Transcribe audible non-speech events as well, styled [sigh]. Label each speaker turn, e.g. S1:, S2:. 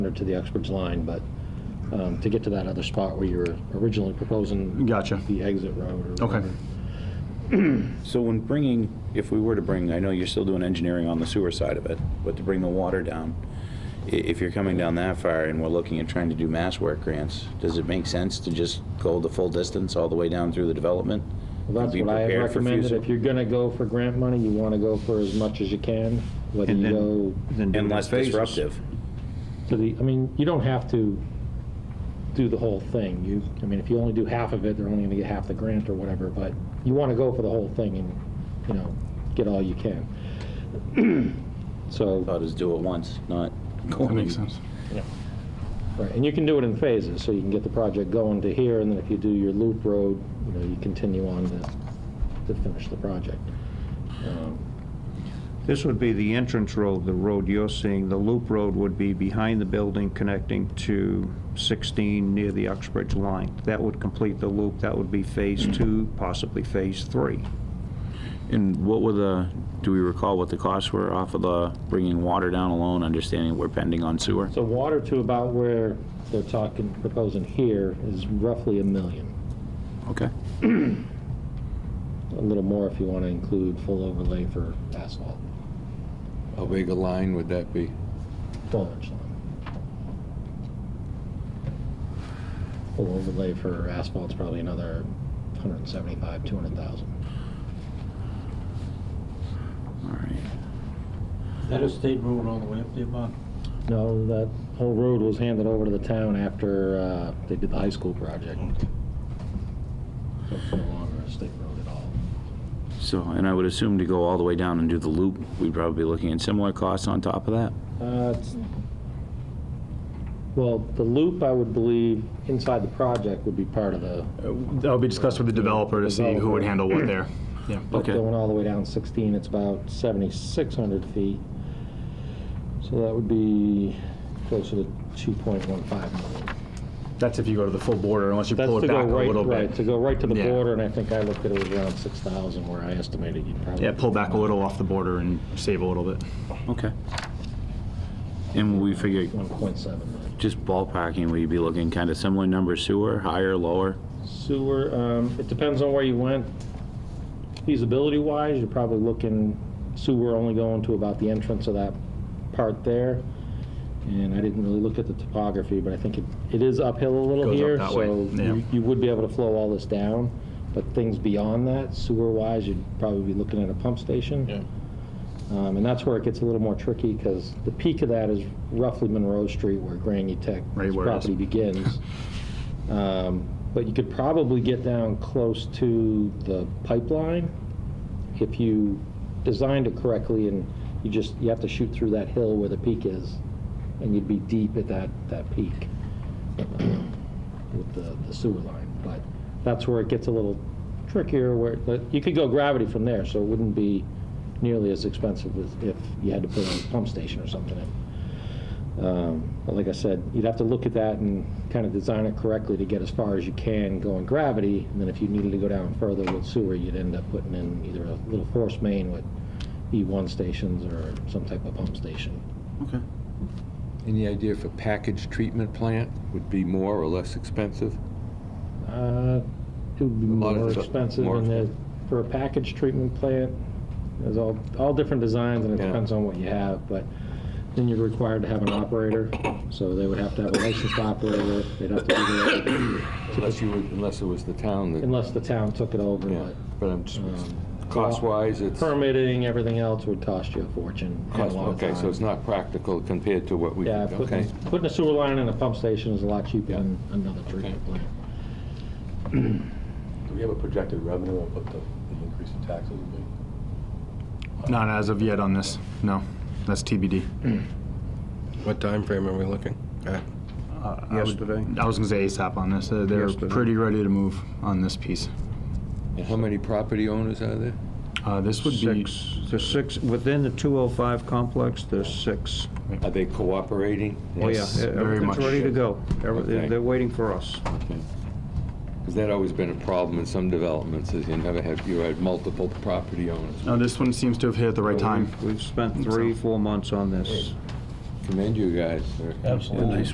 S1: under to the expert's line, but um, to get to that other spot where you were originally proposing.
S2: Gotcha.
S1: The exit road or
S2: Okay.
S1: whatever.
S3: So when bringing, if we were to bring, I know you're still doing engineering on the sewer side of it, but to bring the water down, i- if you're coming down that far and we're looking at trying to do mass work grants, does it make sense to just go the full distance all the way down through the development?
S1: Well, That's
S3: Be
S1: what I
S3: prepared for
S1: recommended.
S3: future-
S1: If you're going to go for grant money, you want to go for as much as you can, whether
S2: And
S1: you
S2: then-
S1: go
S2: then do it in
S3: And less
S2: phases.
S3: disruptive.
S1: to the, I mean, you don't have to do the whole thing. You, I mean, if you only do half of it, they're only going to get half the grant or whatever, but you want to go for the whole thing and, you know, get all you can. [clears throat] So.
S3: Thought is do it once, not going.
S2: That makes sense.
S1: Right, and you can do it in phases, so you can get the project going to here, and then if you do your loop road, you know, you continue on to, to finish the project. Um,
S4: This would be the entrance road, the road you're seeing. The loop road would be behind the building connecting to 16 near the Uxbridge line. That would complete the loop. That would be Phase 2, possibly Phase 3.
S3: And what were the, do we recall what the costs were off of the bringing water down alone, understanding we're pending on sewer?
S1: So water to about where they're talking, proposing here is roughly a million,
S3: Okay.
S2: Uh,
S1: a little more if you want to include full overlay for asphalt,
S5: How big a line would that be?
S1: twelve-inch line. Full overlay for asphalt's probably another 175, 200,000.
S3: All right.
S6: Is that a state road all the way up there, Bob?
S1: No, that whole road was handed over to the town after uh, they did the high school project. So it's no longer a state road at all.
S3: So, and I would assume to go all the way down and do the loop, we'd probably be looking at similar costs on top of that?
S1: Uh, it's- Well, the loop, I would believe, inside the project would be part of the,
S2: That'll be discussed with the developer to see who would handle what there. Yeah.
S1: but
S3: Okay.
S1: going all the way down 16, it's about 7,600 feet. So that would be closer to 2.15 million.
S2: That's if you go to the full border, unless you
S1: That's
S2: pull
S1: to
S2: it
S1: go
S2: back a
S1: right,
S2: little
S1: right, to
S2: bit.
S1: go right to the
S2: Yeah.
S1: border, and I think I looked at it was around 6,000 where I estimated you'd probably.
S2: Yeah, pull back a little off the border and save a little bit.
S3: Okay. And we figure,
S1: 1.7 million.
S3: just ballparking, we would be looking kind of similar number sewer, higher, lower?
S1: Sewer, um, it depends on where you went. Feasibility-wise, you're probably looking sewer only going to about the entrance of that part there. And I didn't really look at the topography, but I think it, it is uphill a little
S2: Goes up
S1: here.
S2: that way,
S1: So
S2: yeah.
S1: you- you would be able to flow all this down, but things beyond that, sewer-wise, you'd probably be looking at a pump station.
S5: Yeah.
S1: Um, and that's where it gets a little more tricky, because the peak of that is roughly Monroe Street where Granny Tech's
S2: Right where it is.
S1: property
S2: [laughs]
S1: begins. Um, But you could probably get down close to the pipeline if you designed it correctly and you just, you have to shoot through that hill where the peak is and you'd be deep at that, that peak um, with the the sewer line. But that's where it gets a little trickier where, but you could go gravity from there, so it wouldn't be nearly as expensive as if you had to put a pump station or something in. Um, But like I said, you'd have to look at that and kind of design it correctly to get as far as you can going gravity. And then if you needed to go down further with sewer, you'd end up putting in either a little force main with E1 stations or some type of pump station.
S3: Okay.
S5: Any idea if a package treatment plant would be more or less expensive?
S1: Uh, It would be
S5: A lot of
S1: more
S5: it's a-
S1: expensive
S5: more
S1: and the, for a package treatment plant, there's all, all different designs and it
S5: Yeah.
S1: depends on what you have, but then you're required to have an operator, so they would have to have a licensed operator, they'd have to do that
S5: Unless you, would- unless it was the town that,
S1: unless the town took it over,
S5: yeah,
S1: but.
S5: but I'm just,
S1: um,
S5: cost-wise, it's,
S1: Permitting, everything else would cost you a fortune and a
S5: cost-
S1: lot of
S5: okay, so
S1: time.
S5: it's not practical compared to what we,
S1: Yeah,
S5: okay.
S1: putting, putting a sewer line in a pump station is a lot cheaper
S5: Yeah.
S1: than another treatment plant.
S7: Do we have a projected revenue of what the the increase in taxes would be?
S2: Not as of yet on this, no. That's TBD.
S8: What time frame are we looking at?
S4: Yesterday?
S2: Uh, I was gonna say ASAP on this. Uh, They're
S4: Yesterday.
S2: pretty ready to move on this piece.
S5: And how many property owners are there?
S2: Uh, This would be,
S4: Six, there's six, within the 205 complex, there's six.
S5: Are they cooperating?
S4: Oh, yeah,
S2: Yes, very much.
S4: everything's ready to go. Every-
S5: Okay.
S4: They're they're waiting for us.
S5: Has that always been a problem in some developments, is you never have, you had multiple property owners?
S2: no, this one seems to have hit at the right time.
S4: We've- We've spent three, four months on this.
S9: commend you guys for
S5: Absolutely.